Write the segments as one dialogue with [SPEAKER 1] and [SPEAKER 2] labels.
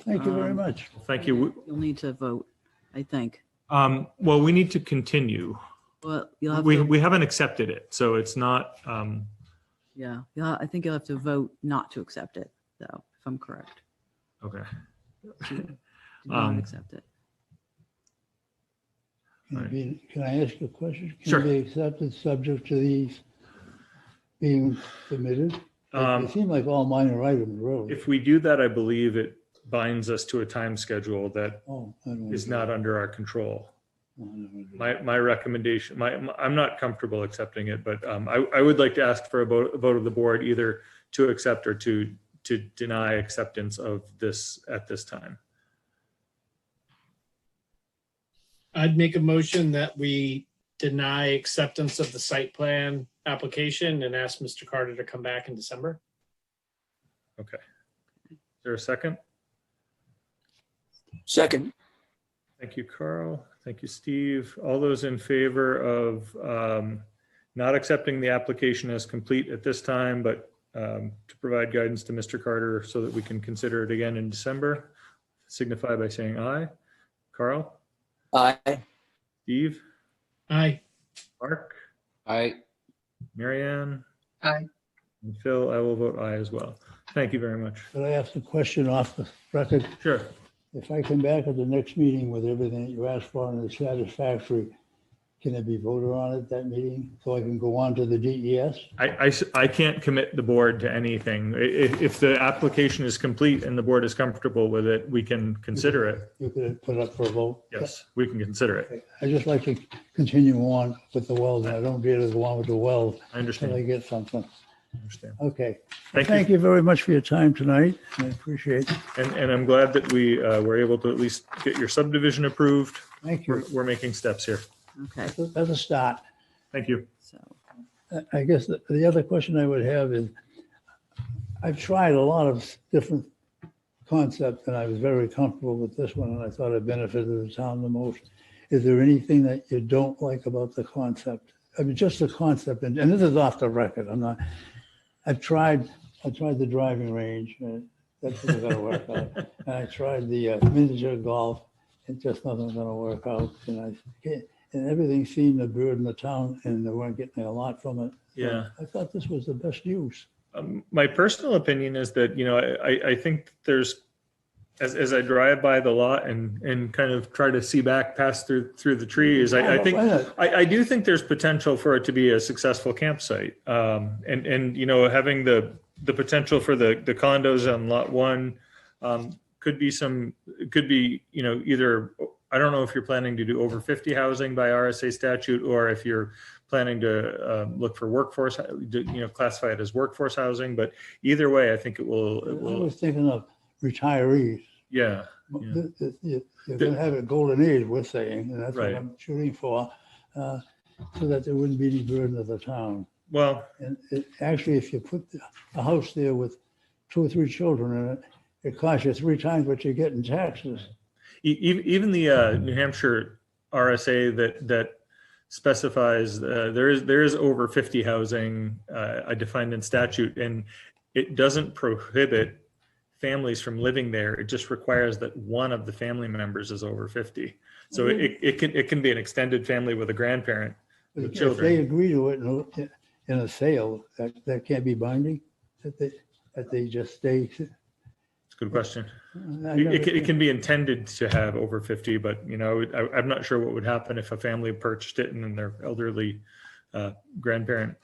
[SPEAKER 1] Thank you very
[SPEAKER 2] Um,
[SPEAKER 1] much.
[SPEAKER 2] Thank you. We-
[SPEAKER 3] You'll need to vote, I think.
[SPEAKER 2] Um, well, we need to continue.
[SPEAKER 3] Well, you'll have
[SPEAKER 2] We,
[SPEAKER 3] to,
[SPEAKER 2] we haven't accepted it, so it's not, um,
[SPEAKER 3] yeah, yeah, I think you'll have to vote not to accept it, though, if I'm correct.
[SPEAKER 2] okay.
[SPEAKER 3] to Not
[SPEAKER 2] Um,
[SPEAKER 3] accept it.
[SPEAKER 1] Can it
[SPEAKER 2] Right.
[SPEAKER 1] be- can I ask a question?
[SPEAKER 2] Sure.
[SPEAKER 1] Can it be accepted subject to these being submitted? They
[SPEAKER 2] Um,
[SPEAKER 1] seem like all minor items, really.
[SPEAKER 2] if we do that, I believe it binds us to a time schedule that
[SPEAKER 1] Oh, I don't
[SPEAKER 2] is
[SPEAKER 1] wanna
[SPEAKER 2] not under our control.
[SPEAKER 1] do- I don't wanna do
[SPEAKER 2] My, my recommendation, my, my- I'm not comfortable accepting it, but um, I, I would like to ask for a vote, a vote of the board either to accept or to, to deny acceptance of this at this time.
[SPEAKER 4] I'd make a motion that we deny acceptance of the site plan application and ask Mr. Carter to come back in December.
[SPEAKER 2] Is there a second?
[SPEAKER 5] Second,
[SPEAKER 2] Thank you, Carl. Thank you, Steve. All those in favor of um, not accepting the application as complete at this time, but um, to provide guidance to Mr. Carter so that we can consider it again in December, signify by saying aye. Carl,
[SPEAKER 5] aye.
[SPEAKER 2] Steve,
[SPEAKER 4] Aye.
[SPEAKER 2] Mark,
[SPEAKER 6] Aye.
[SPEAKER 2] Marianne?
[SPEAKER 5] Aye.
[SPEAKER 2] And Phil, I will vote aye as well. Thank you very much.
[SPEAKER 1] that. Could I ask a question off the record?
[SPEAKER 2] Sure.
[SPEAKER 1] If I come back at the next meeting with everything that you asked for and it's satisfactory, can it be voted on at that meeting so I can go on to the E DES?
[SPEAKER 2] I, I s- I can't commit the board to anything. I- i- if the application is complete and the board is comfortable with it, we can consider it.
[SPEAKER 1] You could put up for a vote.
[SPEAKER 2] Yes, we can consider it.
[SPEAKER 1] I just like to continue on with the wells. and I don't get as long with the wells
[SPEAKER 2] I
[SPEAKER 1] until I
[SPEAKER 2] understand.
[SPEAKER 1] get something.
[SPEAKER 2] I understand.
[SPEAKER 1] Okay.
[SPEAKER 2] Thank
[SPEAKER 1] Thank
[SPEAKER 2] you.
[SPEAKER 1] you very much for your time tonight. I appreciate it.
[SPEAKER 2] And, and I'm glad that we uh, were able to at least get your subdivision approved.
[SPEAKER 1] Thank
[SPEAKER 2] We're,
[SPEAKER 1] you.
[SPEAKER 2] we're making steps here.
[SPEAKER 3] Okay,
[SPEAKER 1] That's a start.
[SPEAKER 2] Thank you.
[SPEAKER 3] so,
[SPEAKER 1] I- I guess the- the other question I would have is, I've tried a lot of different concepts and I was very comfortable with this one and I thought it benefited the town the most. Is there anything that you don't like about the concept? I mean, just the concept, and, and this is off the record, I'm not, I've tried, I tried the driving range, and that's not gonna work out. And I tried the uh, miniature golf, and just nothing's gonna work out. And I, can't- and everything seemed to burden the town and they weren't getting a lot from it.
[SPEAKER 2] Yeah.
[SPEAKER 1] I thought this was the best use.
[SPEAKER 2] Um, my personal opinion is that you know I, I- I think there's as, as I drive by the lot and and kind of try to see back past through through the trees, I, I think
[SPEAKER 1] Why not?
[SPEAKER 2] I, I do think there's potential for it to be a successful campsite. Um, and, and, you know, having the, the potential for the, the condos on lot one, um, could be some, could be, you know, either, I don't know if you're planning to do over 50 housing by RSA statute, or if you're planning to, um, look for workforce, you know, classify it as workforce housing, but either way, I think it will,
[SPEAKER 1] I
[SPEAKER 2] it will,
[SPEAKER 1] was thinking of retirees.
[SPEAKER 2] yeah. Yeah.
[SPEAKER 1] Th- th- you- You're
[SPEAKER 2] The-
[SPEAKER 1] gonna have a golden age, we're saying, and that's what
[SPEAKER 2] Right.
[SPEAKER 1] I'm shooting for, uh, so that there wouldn't be any burden of the town.
[SPEAKER 2] Well,
[SPEAKER 1] And it, actually, if you put the- a house there with two or three children in it, it costs you three times what you get in taxes.
[SPEAKER 2] E- e- Even the uh, New Hampshire RSA that that specifies uh, there is there is over fifty housing uh, I defined in statute, and it doesn't prohibit families from living there. It just requires that one of the family members is over fifty. So it, it can it can be an extended family with a grandparent. With
[SPEAKER 1] If- If
[SPEAKER 2] children.
[SPEAKER 1] they agree to it in a- in a sale, that, that can't be binding, that they, that they just stay.
[SPEAKER 2] It's a good question.
[SPEAKER 1] I
[SPEAKER 2] It, it,
[SPEAKER 1] never-
[SPEAKER 2] can, it can be intended to have over fifty, but you know I, I'm not sure what would happen if a family purchased it and then their elderly uh, grandparent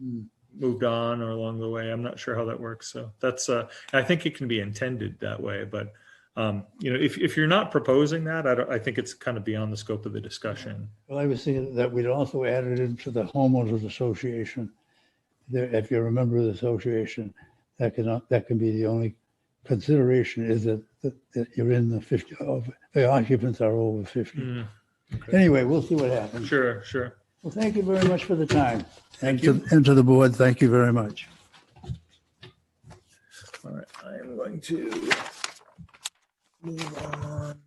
[SPEAKER 1] Hmm.
[SPEAKER 2] moved on or along the way. I'm not sure how that works. So that's uh, I think it can be intended that way, but um, you know, if, if you're not proposing that, I don't, I think it's kind of beyond the scope of the discussion.
[SPEAKER 1] Well, I was thinking that we'd also added into the homeowners association. There, if you're a member of the association, that can, that can be the only consideration is that, that that you're in the fifty, of- the occupants are over fifty.
[SPEAKER 2] Mm,
[SPEAKER 1] Anyway, we'll see what happens.
[SPEAKER 2] sure, sure.
[SPEAKER 1] Well, thank you very much for the time.
[SPEAKER 2] Thank
[SPEAKER 1] And to- And to the board, thank you very much.
[SPEAKER 2] All right, I am going to move on. to-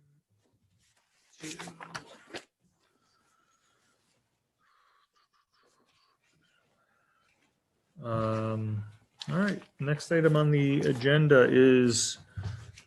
[SPEAKER 2] Um, all right, next item on the agenda is